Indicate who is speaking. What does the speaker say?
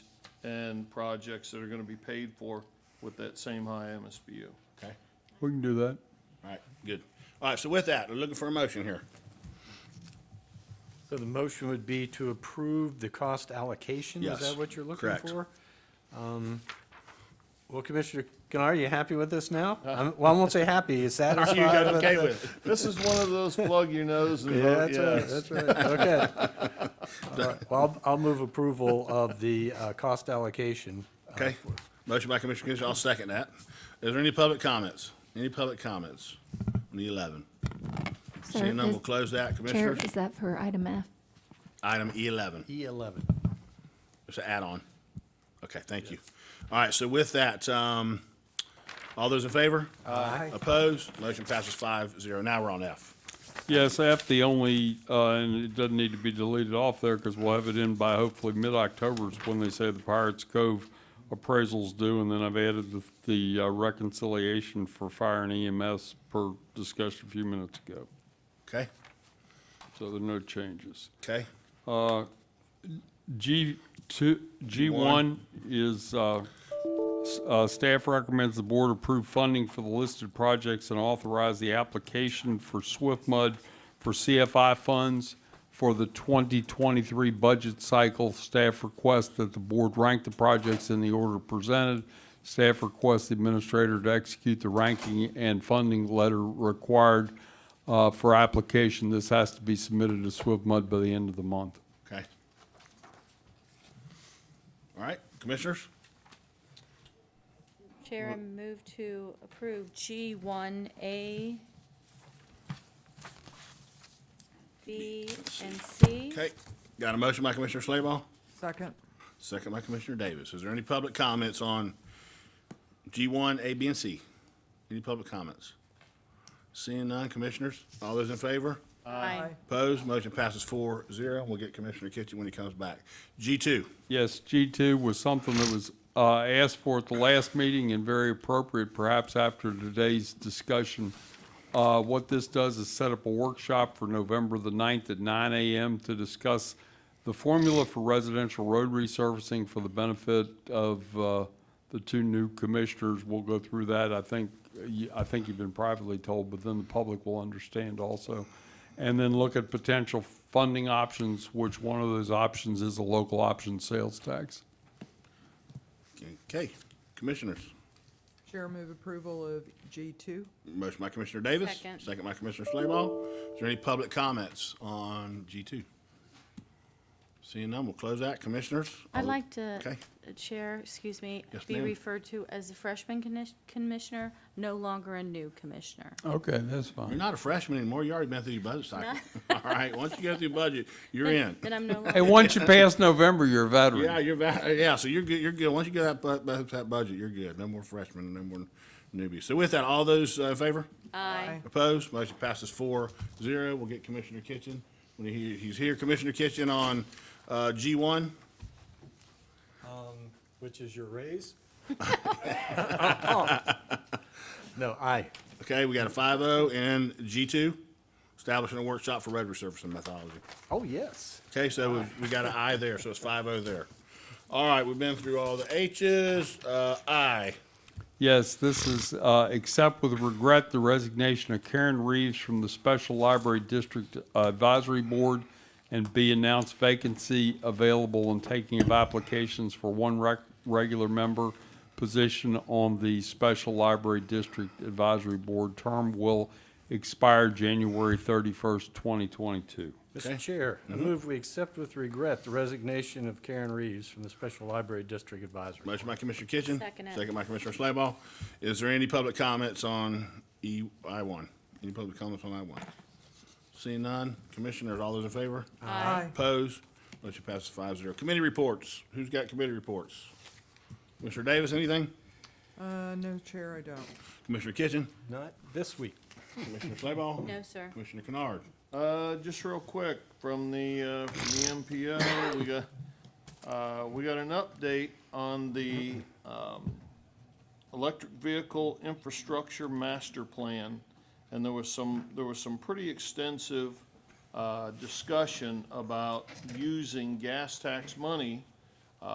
Speaker 1: and projects that are gonna be paid for with that same high MSBU.
Speaker 2: Okay,
Speaker 3: We can do that.
Speaker 2: all right, good. All right, so with that, we're looking for a motion here.
Speaker 4: So the motion would be to approve the cost allocation?
Speaker 2: Yes,
Speaker 4: Is that what you're looking
Speaker 2: correct.
Speaker 4: for? Um, Well, Commissioner Gunnar, are you happy with this now? I'm- Well, I won't say happy, is that
Speaker 2: Uh. You got okay
Speaker 4: the-
Speaker 2: with it?
Speaker 1: This is one of those plug your nose and
Speaker 4: Yeah,
Speaker 1: vote
Speaker 4: that's right,
Speaker 1: yes.
Speaker 4: that's right, okay. All right, Well, I'll- I'll move approval of the uh, cost allocation. uh,
Speaker 2: Okay.
Speaker 4: for-
Speaker 2: Motion by Commissioner Kinsler, I'll second that. Is there any public comments? Any public comments on the eleven?
Speaker 5: Sir,
Speaker 2: Seeing none,
Speaker 5: is-
Speaker 2: we'll close that,
Speaker 5: Chair,
Speaker 2: Commissioners.
Speaker 5: is that for item F?
Speaker 2: Item E eleven,
Speaker 4: E11.
Speaker 2: it's an add-on. Okay, thank you. All right, so with that, um, all those in favor?
Speaker 4: Aye.
Speaker 2: Opposed? Motion passes five zero. Now we're on F.
Speaker 3: Yes, F, the only, uh, and it doesn't need to be deleted off there because we'll have it in by hopefully mid-October is when they say the Pirates Cove appraisal's due. And then I've added the, the uh, reconciliation for fire and EMS per discussion a few minutes ago.
Speaker 2: Okay,
Speaker 3: So there are no changes.
Speaker 2: okay,
Speaker 3: G two, G one is, uh, s- uh, staff recommends the board approve funding for the listed projects and authorize the application for Swift Mud for CFI funds for the 2023 budget cycle. Staff requests that the board rank the projects in the order presented. Staff requests the administrator to execute the ranking and funding letter required uh, for application. This has to be submitted to Swift Mud by the end of the month.
Speaker 2: okay. All right, Commissioners?
Speaker 6: Chair, I move to approve G1A, B, and C.
Speaker 2: Okay, got a motion by Commissioner Slayball,
Speaker 7: Second.
Speaker 2: second by Commissioner Davis. Is there any public comments on G1, A, B, and C? Any public comments? Seeing none, Commissioners, all those in favor?
Speaker 6: Aye.
Speaker 2: Opposed, motion passes four zero. We'll get Commissioner Kitchen when he comes back. G2,
Speaker 3: Yes, G2 was something that was uh, asked for at the last meeting and very appropriate, perhaps after today's discussion. Uh, What this does is set up a workshop for November the 9th at 9 a.m. to discuss the formula for residential road resurfacing for the benefit of uh, the two new commissioners. We'll go through that. I think, I think you've been privately told, but then the public will understand also and then look at potential funding options, which one of those options is a local option sales tax.
Speaker 2: okay, Commissioners.
Speaker 7: Chair, move approval of G2.
Speaker 2: Motion by Commissioner Davis.
Speaker 6: Second.
Speaker 2: Second by Commissioner Slayball. Is there any public comments on G2? Seeing none, we'll close that. Commissioners?
Speaker 6: I'd like to,
Speaker 2: Okay.
Speaker 6: uh, Chair, excuse me,
Speaker 2: Yes,
Speaker 6: be
Speaker 2: ma'am.
Speaker 6: referred to as a freshman commis- commissioner, no longer a new commissioner.
Speaker 3: Okay, that's
Speaker 2: You're
Speaker 3: fine.
Speaker 2: not a freshman anymore. You already been through your budget cycle. All right, once you go through budget, you're in.
Speaker 6: Then I'm no longer.
Speaker 3: Hey, once you pass November, you're a veteran.
Speaker 2: Yeah, you're va- yeah, so you're good, you're good. Once you get that, bu- bu- that budget, you're good. No more freshmen, no more newbies. So with that, all those uh, in favor?
Speaker 6: Aye.
Speaker 2: Opposed? Motion passes four zero. We'll get Commissioner Kitchen. When he, he's here, Commissioner Kitchen on, uh, G one.
Speaker 4: Which is your raise? Uh, No, aye.
Speaker 2: Okay, we got a five oh and G two, establishing a workshop for road resurfacing methodology.
Speaker 4: Oh, yes.
Speaker 2: Okay, so we, we got an I there, so it's five oh there. All right, we've been through all the H's, uh, I.
Speaker 3: Yes, this is, uh, accept with regret the resignation of Karen Reeves from the Special Library District Advisory Board and be announced vacancy available and taking of applications for one rec- regular member position on the Special Library District Advisory Board. Term will expire January 31st, 2022.
Speaker 2: Okay.
Speaker 4: Mr. Chair, I move we accept with regret the resignation of Karen Reeves from the Special Library District Advisory.
Speaker 2: Motion by Commissioner Kitchen.
Speaker 6: Second it.
Speaker 2: Second by Commissioner Slayball. Is there any public comments on E, I one? Any public comments on I one? Seeing none, Commissioners, all those in favor?
Speaker 7: Aye.
Speaker 2: Opposed? Motion passes five zero. Committee reports. Who's got committee reports? Commissioner Davis, anything?
Speaker 7: Uh, no, Chair, I don't.
Speaker 2: Commissioner Kitchen?
Speaker 4: Not this week.
Speaker 2: Commissioner Slayball?
Speaker 6: No, sir.
Speaker 2: Commissioner Kennard?
Speaker 1: Uh, just real quick, from the, uh, from the MPO, we got, uh, we got an update on the, um, electric vehicle infrastructure master plan. And there was some, there was some pretty extensive, uh, discussion about using gas tax money